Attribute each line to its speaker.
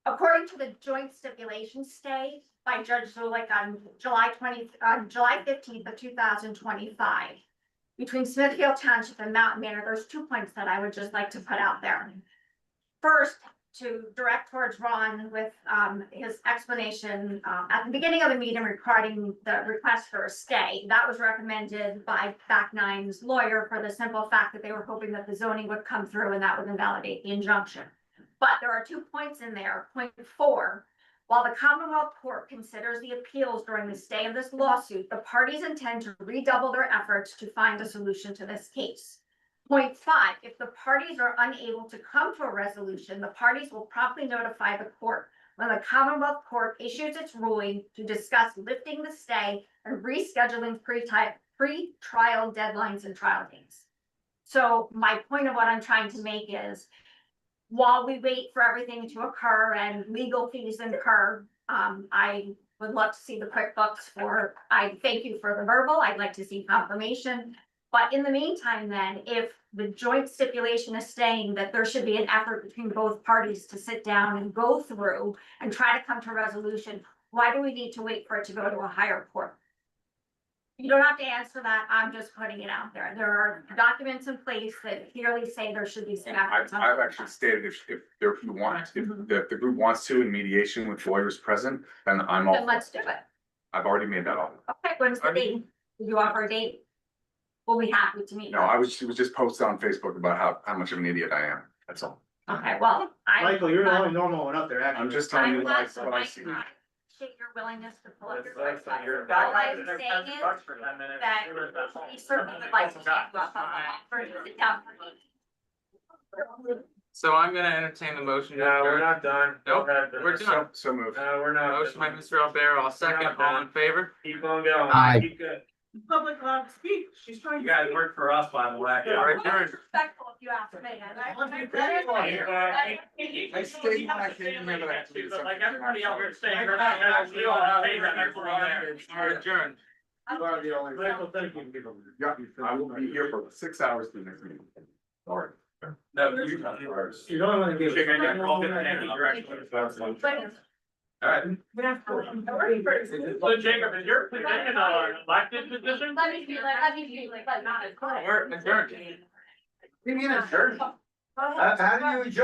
Speaker 1: going to the joint stipulation stay by Judge Zulik on July twenty, on July fifteenth of two thousand twenty-five. Between Smithfield Township and Mountain Manor, there's two points that I would just like to put out there. First, to direct towards Ron with um his explanation um at the beginning of the meeting regarding the request for a stay. That was recommended by Fact Nine's lawyer for the simple fact that they were hoping that the zoning would come through and that would invalidate the injunction. But there are two points in there. Point four, while the Commonwealth Court considers the appeals during the stay of this lawsuit, the parties intend to redouble their efforts to find a solution to this case. Point five, if the parties are unable to come to a resolution, the parties will promptly notify the court when the Commonwealth Court issues its ruling to discuss lifting the stay and rescheduling pre-type, pre-trial deadlines and trial dates. So my point of what I'm trying to make is while we wait for everything to occur and legal fees incur, um, I would love to see the QuickBooks for, I thank you for the verbal, I'd like to see confirmation. But in the meantime, then, if the joint stipulation is saying that there should be an effort between both parties to sit down and go through and try to come to a resolution, why do we need to wait for it to go to a higher court? You don't have to answer that. I'm just putting it out there. There are documents in place that clearly say there should be some
Speaker 2: I've,
Speaker 1: efforts. on
Speaker 2: I've
Speaker 1: both
Speaker 2: actually
Speaker 1: sides.
Speaker 2: stated if, if, there- if you want, if,
Speaker 1: Mhm.
Speaker 2: the- if the group wants to in mediation with lawyers present, then I'm
Speaker 1: Then
Speaker 2: all,
Speaker 1: let's do it.
Speaker 2: I've already made that offer.
Speaker 1: Okay, when's the
Speaker 2: I
Speaker 1: date?
Speaker 2: mean-
Speaker 1: Do you offer a date? We'll be happy to meet.
Speaker 2: No, I was, she was just posted on Facebook about how, how much of an idiot I am, that's all.
Speaker 1: Okay, well, I.
Speaker 3: Michael, you're the only normal one up there, actually.
Speaker 2: I'm just telling
Speaker 1: I'm
Speaker 2: you
Speaker 1: glad
Speaker 2: what
Speaker 1: to
Speaker 2: I- what I see.
Speaker 1: appreciate your willingness to pull up your.
Speaker 4: That's- that's-
Speaker 1: sweatshirt.
Speaker 4: you're-
Speaker 1: All I'm saying is that we certainly would like to take you up on that for sit down for lunch.
Speaker 5: So I'm gonna entertain the motion. to
Speaker 4: No, we're
Speaker 5: adjourn.
Speaker 4: not done.
Speaker 5: Nope, we're done.
Speaker 2: So, so moved.
Speaker 4: No, we're not.
Speaker 5: Motion by Mr. Albert, I'll second, all in favor?
Speaker 4: Keep on going.
Speaker 5: Aye.
Speaker 4: Keep good.
Speaker 6: Public law, speak, she's trying
Speaker 4: You
Speaker 6: to.
Speaker 4: guys work for us, by the way.
Speaker 5: Yeah. Right,
Speaker 1: Well,
Speaker 5: Karen.
Speaker 1: it's Respectful if you ask me. I like-
Speaker 4: You, uh, you-
Speaker 2: I stayed back in the middle of it.
Speaker 6: But like everybody else is saying, we're not actually on favor of everyone.
Speaker 5: Are adjourned.
Speaker 3: You are the only.
Speaker 4: Michael, thank you.
Speaker 2: Yeah, I will be here for six hours the next meeting. Sorry.
Speaker 4: No, you- Alright.
Speaker 3: You don't wanna give.
Speaker 4: Figure out your call in any direction.
Speaker 1: But it's-
Speaker 4: So Jacob, is your position on elected position?
Speaker 1: Let me be, let me be, like, not as.
Speaker 5: We're adjourned.
Speaker 4: You mean a church?
Speaker 3: How, how do you adjourn?